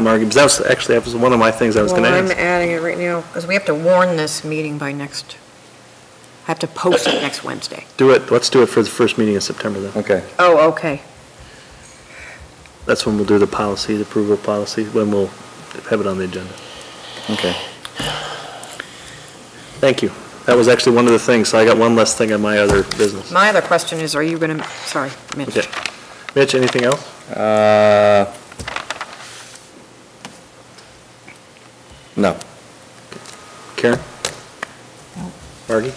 Margie, because that was, actually, that was one of my things I was going to Well, I'm ask. adding it right now, because we have to warn this meeting by next, have to post it next Wednesday. Do it, let's do it for the first meeting in September, then. Okay. Oh, okay. That's when we'll do the policy, the approval of policy, when we'll have it on the agenda. Okay. Thank you. That was actually one of the things, so I got one less thing on my other business. My other question is, are you going to, sorry, Okay. Mitch. Mitch, anything else? Uh, No. Karen? Margie?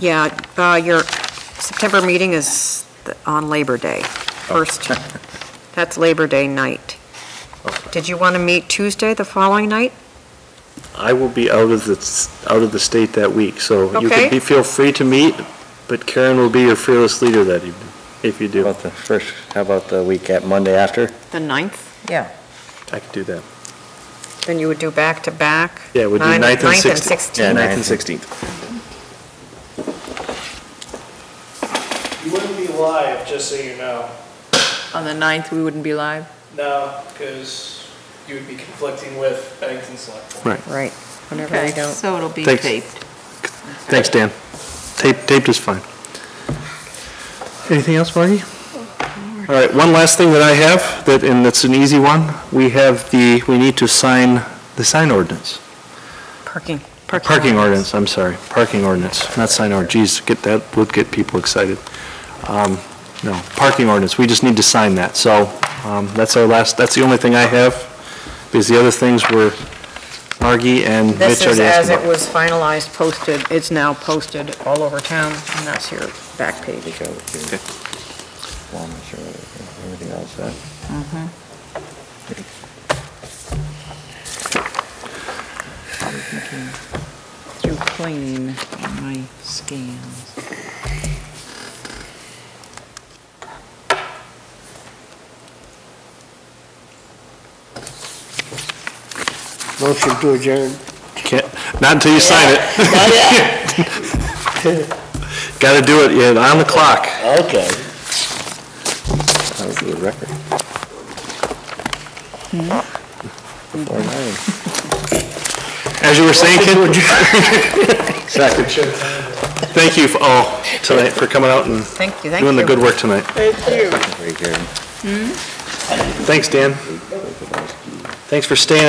Yeah, uh, your September meeting is th- on Labor Day, first. Oh. That's Labor Day night. Did you want to meet Tuesday, the following night? I will be out of the, out of the state that week, so you Okay. can be, feel free to meet, but Karen will be your fearless leader that evening, if you How do. about the first, how about the week at Monday after? The ninth. I could do that. Then you would do back-to-back? Yeah, we'll do Nine- 9th and ninth 16th. 16th. Yeah, Ninth and 16th. You wouldn't be live, just so you know. On the 9th, we wouldn't be live? No, because you would be conflicting with Bennington Select Board. Right. Right, whenever Okay, we don't. So it'll be Thanks. taped. Thanks, Dan. Tape- Taped is fine. Anything else, Margie? All right, one last thing that I have, that, and it's an easy one. We have the, we need to sign the sign ordinance. Parking. Parking ordinance, I'm sorry, parking ordinance, not sign ordinance. Geez, get that, would get people excited. Um, No, parking ordinance, we just need to sign that. So um, that's our last, that's the only thing I have, because the other things were Margie and Mitch This is already asked as it about. was finalized, posted, it's now posted all over town, and that's your back page. Well, I'm sure Everything else, uh, Through clean on my scans. Motion to adjourn. Can't- Not until you sign it. Got to do it, yeah, on the clock. Okay. that would be a record. Before nine. As you were saying, Ken? Exactly. Thank you for- all tonight for coming out and Thank you, thank you. Hmm? doing the good work tonight. Very good. Thanks, Dan. Thanks for staying